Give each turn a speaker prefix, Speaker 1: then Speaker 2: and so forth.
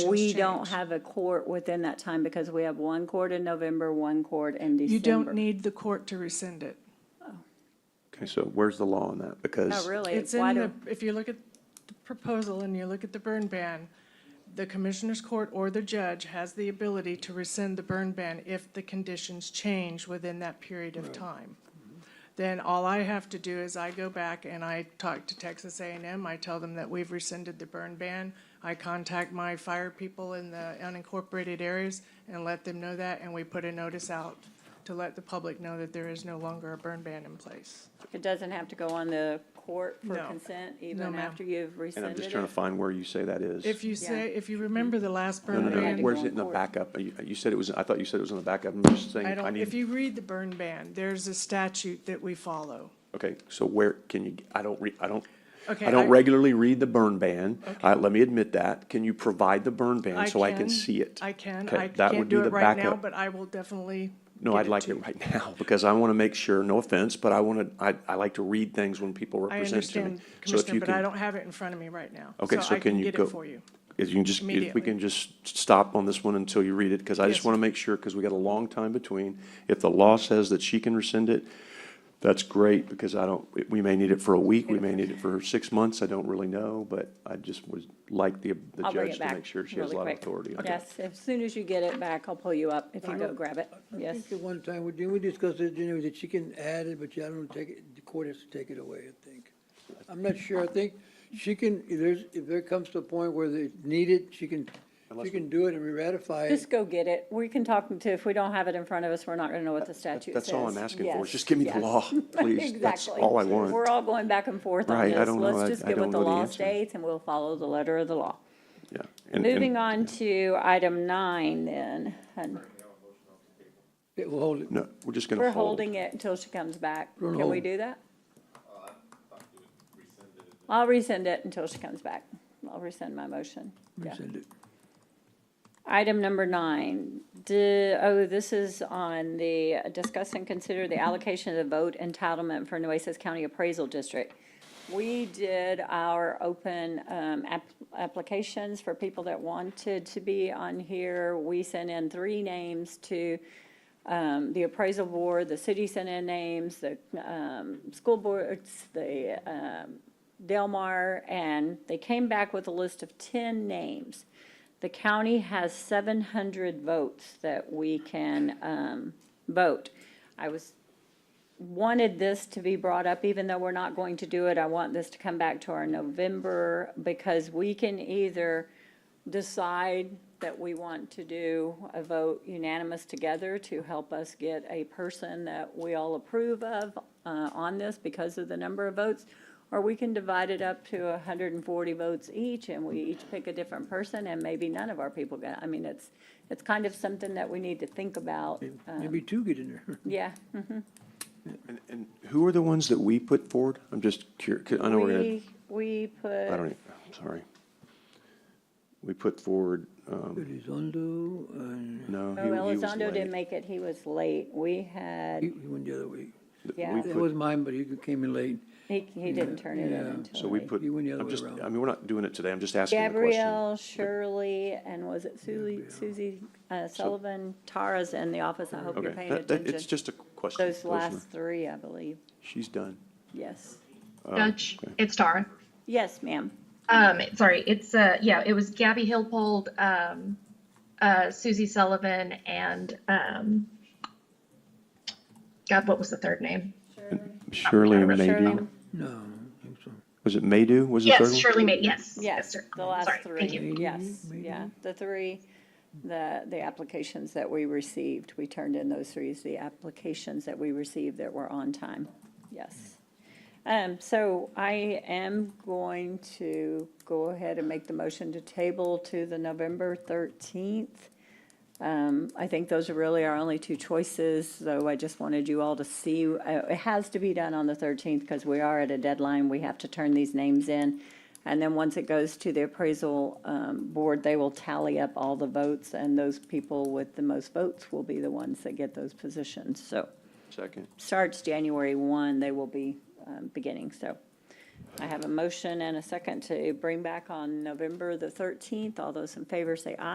Speaker 1: We
Speaker 2: change.
Speaker 1: don't have a court within that time because we have one court in November, one court in December.
Speaker 2: You don't need the court to rescind it.
Speaker 3: Okay, so where's the law on that?
Speaker 1: Not
Speaker 3: Because
Speaker 1: Oh, really.
Speaker 2: It's
Speaker 1: Why
Speaker 2: in the,
Speaker 1: do-
Speaker 2: if you look at the proposal and you look at the burn ban, the commissioner's court or the judge has the ability to rescind the burn ban if the conditions change within that period of time. Then all I have to do is I go back and I talk to Texas A and m I tell them that we've rescinded the burn ban. I contact my fire people in the unincorporated areas and let them know that, and we put a notice out to let the public know that there is no longer a burn ban in place.
Speaker 1: It doesn't have to go on the court for
Speaker 2: No.
Speaker 1: consent
Speaker 2: No,
Speaker 1: even
Speaker 2: ma'am.
Speaker 1: after you've
Speaker 3: and I'm
Speaker 1: rescinded
Speaker 3: just trying
Speaker 1: it?
Speaker 3: to find where you say that is.
Speaker 2: If you say, if you remember the last
Speaker 3: No,
Speaker 2: burn
Speaker 3: no,
Speaker 1: Had to
Speaker 3: no.
Speaker 2: ban,
Speaker 1: go
Speaker 3: Where's it
Speaker 1: on
Speaker 3: in the
Speaker 1: court.
Speaker 3: backup? You you said it was, I thought you said it was in the backup. I'm just saying,
Speaker 2: I
Speaker 3: I
Speaker 2: don't, if
Speaker 3: need,
Speaker 2: you read the burn ban, there's a statute that we follow.
Speaker 3: okay, so where, can you, I don't, re- I don't,
Speaker 2: Okay,
Speaker 3: I don't
Speaker 2: I-
Speaker 3: regularly read the burn ban.
Speaker 2: Okay.
Speaker 3: I- Let me admit that. Can you provide the burn ban so I can see it?
Speaker 2: I can,
Speaker 3: Okay,
Speaker 2: I
Speaker 3: that would
Speaker 2: can't
Speaker 3: be
Speaker 2: do
Speaker 3: the
Speaker 2: it right now,
Speaker 3: backup.
Speaker 2: but I will definitely.
Speaker 3: No,
Speaker 2: get
Speaker 3: I'd like
Speaker 2: to
Speaker 3: it
Speaker 2: you.
Speaker 3: right now, because I want to make sure, no offense, but I want to, I, I like to read things when people
Speaker 2: I
Speaker 3: represent to me.
Speaker 2: understand,
Speaker 3: So if
Speaker 2: Commissioner,
Speaker 3: you
Speaker 2: but I
Speaker 3: can,
Speaker 2: don't have it in front of me right now.
Speaker 3: Okay, so
Speaker 2: I
Speaker 3: can you
Speaker 2: get it
Speaker 3: go-
Speaker 2: for you.
Speaker 3: if you can just, if we
Speaker 2: Immediately.
Speaker 3: can just stop on this one until you read it, because I just
Speaker 2: Yes.
Speaker 3: want to make sure, because we got a long time between. If the law says that she can rescind it, that's great, because I don't, we- we may need it for a week, we may need it for six months, I don't really know, but I just would like the, the
Speaker 1: I'll bring
Speaker 3: judge
Speaker 1: it
Speaker 3: to
Speaker 1: back
Speaker 3: make sure she has
Speaker 1: really
Speaker 3: a lot of
Speaker 1: quick.
Speaker 3: authority. on it.
Speaker 1: Yes, as soon as you get it back, I'll pull you up if you go grab it.
Speaker 4: I
Speaker 1: Yes.
Speaker 4: think at one time, we- didn't we discuss it, Jenny, that she can add it, but I don't take it, the court has to take it away, I think. I'm not sure, I think she can, if there's, if there comes to a point where they need it, she can, she can do it and re-ratify it.
Speaker 1: Just go get it. We can talk to, if we don't have it in front of us, we're not gonna know what the statute says.
Speaker 3: That's all I'm asking for, is
Speaker 1: Yes,
Speaker 3: just give me the
Speaker 1: yes.
Speaker 3: law, please, that's
Speaker 1: Exactly.
Speaker 3: all I
Speaker 1: We're
Speaker 3: want.
Speaker 1: all going back and forth on
Speaker 3: Right, I
Speaker 1: this.
Speaker 3: don't know. I-
Speaker 1: Let's just
Speaker 3: I
Speaker 1: get
Speaker 3: don't
Speaker 1: what the
Speaker 3: know the
Speaker 1: law
Speaker 3: answer.
Speaker 1: states and we'll follow the letter of the law.
Speaker 3: Yeah. And- and-
Speaker 1: Moving on to item nine then. and
Speaker 4: Yeah, We'll hold it.
Speaker 3: No, we're just going
Speaker 1: We're
Speaker 3: to hold.
Speaker 1: holding it until she comes back.
Speaker 4: We're on
Speaker 1: Can we
Speaker 4: hold.
Speaker 1: do that? Uh, I'll rescind it until she comes back. I'll rescind my motion. Yeah.
Speaker 4: Rescind it.
Speaker 1: Item number nine, d- oh, this is on the, uh, discuss and consider the allocation of the vote entitlement for Nueces County Appraisal District. We did our open um, app- applications for people that wanted to be on here. We sent in three names to um, the appraisal board, the city sent in names, the um, school boards, the um, Delmar, and they came back with a list of 10 names. The county has 700 votes that we can um, vote. I was, wanted this to be brought up, even though we're not going to do it. I want this to come back to our November, because we can either decide that we want to do a vote unanimous together to help us get a person that we all approve of uh, on this because of the number of votes, or we can divide it up to 140 votes each, and we each pick a different person, and maybe none of our people get, I mean, it's, it's kind of something that we need to think about. Uh,
Speaker 4: Maybe two get in there.
Speaker 1: Yeah.
Speaker 3: And, and who are the ones that we put forward? I'm just curious, I know we're going
Speaker 1: We, we put.
Speaker 3: to, I don't even, I'm sorry. We put forward, um,
Speaker 4: Elizondo, and
Speaker 3: no,
Speaker 1: Oh,
Speaker 3: he- he was
Speaker 1: Elizondo
Speaker 3: late.
Speaker 1: didn't make it, he was late. We
Speaker 4: he,
Speaker 1: had,
Speaker 4: he went the other way.
Speaker 3: Th-
Speaker 1: yeah.
Speaker 3: we
Speaker 4: That
Speaker 3: put-
Speaker 4: was mine, but he came in late.
Speaker 1: he, he didn't turn it in
Speaker 4: Yeah.
Speaker 1: until.
Speaker 3: So we
Speaker 1: late.
Speaker 3: put,
Speaker 4: He went the other
Speaker 3: I'm
Speaker 4: way
Speaker 3: just,
Speaker 4: around.
Speaker 3: I mean, we're not doing it today, I'm just asking the question.
Speaker 1: Gabrielle, Shirley, and was it Suzie, Suzie uh, Sullivan, Tara's in the office, I hope you're
Speaker 3: Okay,
Speaker 1: paying
Speaker 3: that- that- it's
Speaker 1: attention.
Speaker 3: just a question.
Speaker 1: Those last three, I believe,
Speaker 3: She's done.
Speaker 1: yes.
Speaker 5: Judge,
Speaker 3: Oh, okay.
Speaker 5: it's Tara.
Speaker 1: Yes, ma'am,
Speaker 5: Um, sorry, it's, uh, yeah, it was Gabby Hillpold, um, uh, Susie Sullivan and, um, God, what was the third name?
Speaker 1: Shirley,
Speaker 3: Shirley Maydew,
Speaker 4: No, I think so.
Speaker 3: was it Maydew, was the third
Speaker 5: Yes,
Speaker 3: one?
Speaker 5: Shirley May, yes.
Speaker 1: yes,
Speaker 5: sir.
Speaker 1: the last
Speaker 5: Sorry,
Speaker 1: three,
Speaker 5: Thank you.
Speaker 1: yes,
Speaker 4: Maybe,
Speaker 1: yeah, the three, the, the applications that we received, we turned in those three, is the applications that we received that were on time, yes. Um, so I am going to go ahead and make the motion to table to the November thirteenth. Um, I think those are really our only two choices, so I just wanted you all to see, uh, it has to be done on the thirteenth because we are at a deadline, we have to turn these names in. And then once it goes to the appraisal, um, board, they will tally up all the votes and those people with the most votes will be the ones that get those positions, so
Speaker 3: Second,
Speaker 1: starts January 1, they will be um, beginning, so. I have a motion and a second to bring back on November the thirteenth. All those in favor say aye.